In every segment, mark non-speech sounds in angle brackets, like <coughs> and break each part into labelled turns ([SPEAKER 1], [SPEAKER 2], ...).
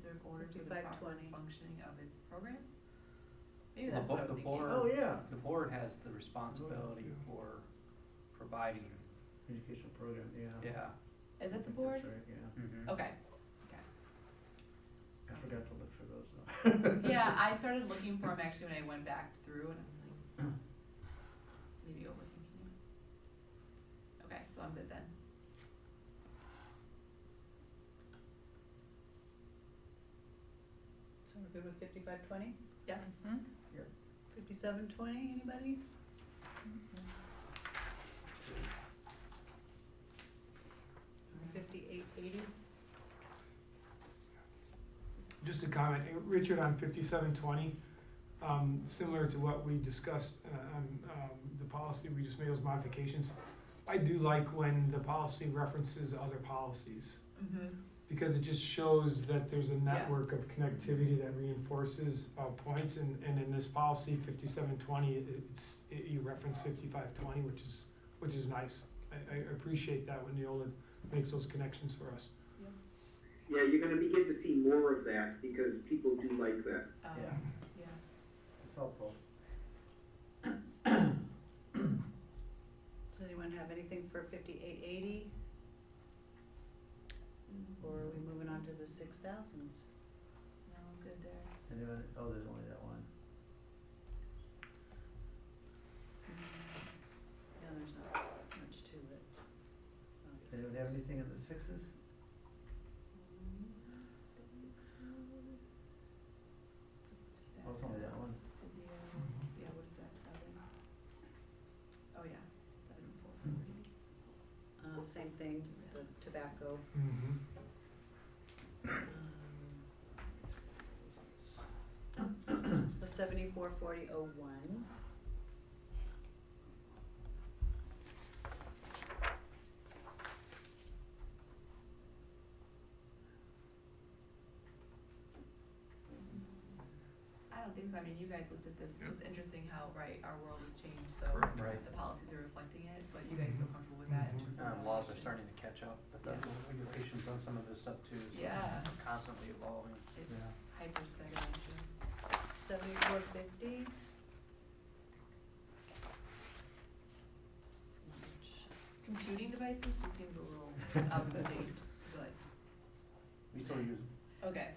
[SPEAKER 1] to the proper
[SPEAKER 2] 5:20.
[SPEAKER 1] functioning of its program? Maybe
[SPEAKER 3] The
[SPEAKER 1] that's what I
[SPEAKER 3] bo-
[SPEAKER 1] was
[SPEAKER 3] the
[SPEAKER 1] thinking.
[SPEAKER 3] board,
[SPEAKER 4] Oh, yeah,
[SPEAKER 3] the board has the responsibility
[SPEAKER 4] yeah.
[SPEAKER 3] for providing,
[SPEAKER 4] educational program, yeah.
[SPEAKER 3] yeah.
[SPEAKER 1] Oh, Is
[SPEAKER 4] I
[SPEAKER 1] it the
[SPEAKER 4] think that's
[SPEAKER 1] board?
[SPEAKER 4] right, Yeah,
[SPEAKER 3] mhm.
[SPEAKER 1] Okay,
[SPEAKER 4] I forgot to look for those though.
[SPEAKER 1] yeah, I started looking for them actually when I went back through and I was like, maybe overthinking it. Okay, so I'm good then.
[SPEAKER 2] So we're good with fifty-five twenty?
[SPEAKER 1] Yeah.
[SPEAKER 4] Yep.
[SPEAKER 2] Fifty-seven twenty, anybody?
[SPEAKER 1] Mm-hmm.
[SPEAKER 2] Fifty-eight eighty?
[SPEAKER 5] Just a comment, Uh, Richard, on fifty-seven twenty, um, similar to what we discussed uh, on, um, the policy, we just made those modifications. I do like when the policy references other policies,
[SPEAKER 1] Mm-hmm.
[SPEAKER 5] because it just shows that there's a
[SPEAKER 1] Yeah.
[SPEAKER 5] network of connectivity that reinforces, uh, points, and, and in this policy, fifty-seven twenty, it's, it- you reference fifty-five twenty, which is, which is nice. I, I appreciate that when Neola makes those connections for us.
[SPEAKER 6] Yeah, you're gonna begin to see more of that because people do like that.
[SPEAKER 1] Um,
[SPEAKER 4] Yeah.
[SPEAKER 1] yeah.
[SPEAKER 4] It's helpful.
[SPEAKER 2] Does anyone have anything for fifty-eight eighty,
[SPEAKER 1] Mm,
[SPEAKER 2] or are we moving on to the six thousands?
[SPEAKER 1] No, I'm good there.
[SPEAKER 4] And then, oh, there's only that one.
[SPEAKER 2] Yeah, there's not much to it.
[SPEAKER 4] Does anyone have anything in the sixes? Oh, it's only that one.
[SPEAKER 5] Mm-hmm.
[SPEAKER 1] Yeah, what is that, seven? Oh, yeah, seven four forty.
[SPEAKER 2] Uh, same thing, the tobacco.
[SPEAKER 5] Mm-hmm.
[SPEAKER 2] um, <coughs> The seventy-four forty oh one.
[SPEAKER 1] I don't think so, I mean, you guys looked at this, it was interesting how, right, our world has changed, so
[SPEAKER 4] Right.
[SPEAKER 1] the policies are reflecting it, but you guys feel comfortable with that in terms of.
[SPEAKER 3] Um, laws are
[SPEAKER 1] adoption?
[SPEAKER 3] starting to catch up, but that's what regulations on some of this stuff too, so
[SPEAKER 1] Yeah.
[SPEAKER 3] it's constantly evolving.
[SPEAKER 1] It's hyper segmentation.
[SPEAKER 2] Seventy-four fifty.
[SPEAKER 1] Computing devices just seems a little out of date, but,
[SPEAKER 3] We still use,
[SPEAKER 1] okay.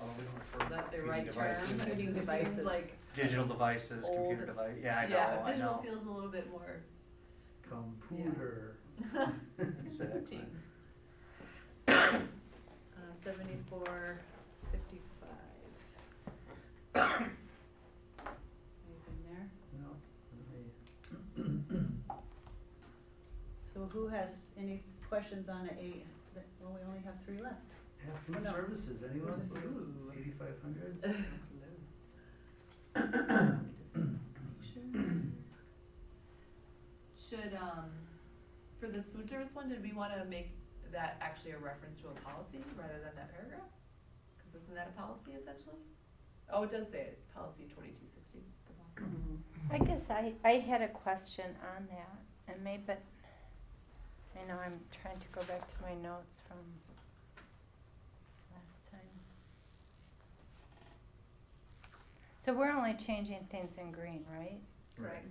[SPEAKER 3] although we don't refer
[SPEAKER 1] Is that the
[SPEAKER 3] computing
[SPEAKER 1] right term?
[SPEAKER 3] devices.
[SPEAKER 2] Computing
[SPEAKER 1] It seems
[SPEAKER 2] devices.
[SPEAKER 1] Like,
[SPEAKER 3] Digital devices, computer
[SPEAKER 1] Old.
[SPEAKER 3] device, yeah, I know,
[SPEAKER 1] yeah,
[SPEAKER 3] I
[SPEAKER 1] digital
[SPEAKER 3] know.
[SPEAKER 1] feels a little bit more
[SPEAKER 4] Computer.
[SPEAKER 3] Exactly.
[SPEAKER 1] Team.
[SPEAKER 2] Uh, seventy-four fifty-five. <coughs> Anything there?
[SPEAKER 4] No, let me-
[SPEAKER 2] So who has any questions on a eight? That- Well, we only have three left.
[SPEAKER 4] Yeah, food
[SPEAKER 2] No.
[SPEAKER 4] services, anyone?
[SPEAKER 2] Where's it?
[SPEAKER 4] Ooh, eighty-five hundred?
[SPEAKER 1] Should, um, for this food service one, did we wanna make that actually a reference to a policy rather than that paragraph? Cause isn't that a policy essentially? Oh, it does say it, policy twenty-two sixty.
[SPEAKER 7] I guess I, I had a question on that, and maybe, I know I'm trying to go back to my notes from last time. So we're only changing things in green, right?
[SPEAKER 4] Right.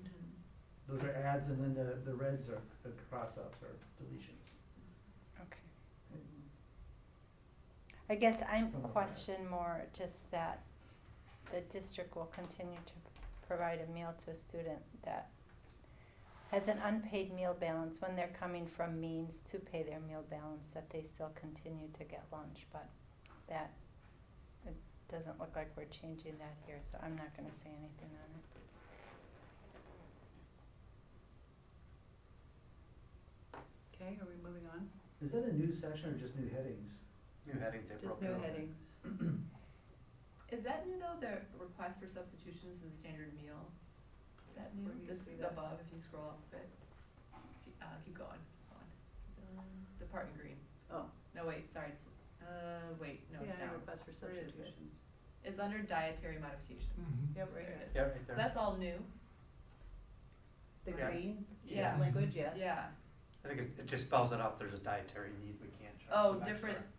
[SPEAKER 4] Those are adds and then the, the reds are, the cross-outs are deletions.
[SPEAKER 7] Okay. I guess I'm
[SPEAKER 4] Something like that.
[SPEAKER 7] question more just that the district will continue to provide a meal to a student that has an unpaid meal balance when they're coming from means to pay their meal balance, that they still continue to get lunch, but that, it doesn't look like we're changing that here, so I'm not gonna say anything on it.
[SPEAKER 2] Okay, are we moving on?
[SPEAKER 4] Is that a new section or just new headings?
[SPEAKER 3] New headings, they
[SPEAKER 2] Just
[SPEAKER 3] broke
[SPEAKER 2] new
[SPEAKER 3] it up.
[SPEAKER 2] headings.
[SPEAKER 1] Is that new though, the request for substitutions in standard meal? Is that new?
[SPEAKER 2] Where do you
[SPEAKER 1] This
[SPEAKER 2] see that?
[SPEAKER 1] above, if you scroll up a bit. Keep- Uh, keep going, hold on. The part in green.
[SPEAKER 2] Oh.
[SPEAKER 1] No, wait, sorry, it's, uh, wait, no, it's
[SPEAKER 2] Yeah,
[SPEAKER 1] down.
[SPEAKER 2] request for
[SPEAKER 1] Where is it?
[SPEAKER 2] substitutions.
[SPEAKER 1] It's under dietary modification.
[SPEAKER 2] Yep,
[SPEAKER 1] There it is.
[SPEAKER 3] Yeah, right
[SPEAKER 1] So
[SPEAKER 3] there.
[SPEAKER 1] that's all new?
[SPEAKER 2] The
[SPEAKER 3] Yeah.
[SPEAKER 2] green
[SPEAKER 1] Yeah.
[SPEAKER 2] language, yes.
[SPEAKER 1] Yeah.
[SPEAKER 3] I think it, it just spells it out, there's a dietary need, we can't. shut
[SPEAKER 1] Oh,
[SPEAKER 3] the back
[SPEAKER 1] different, oh,
[SPEAKER 3] door.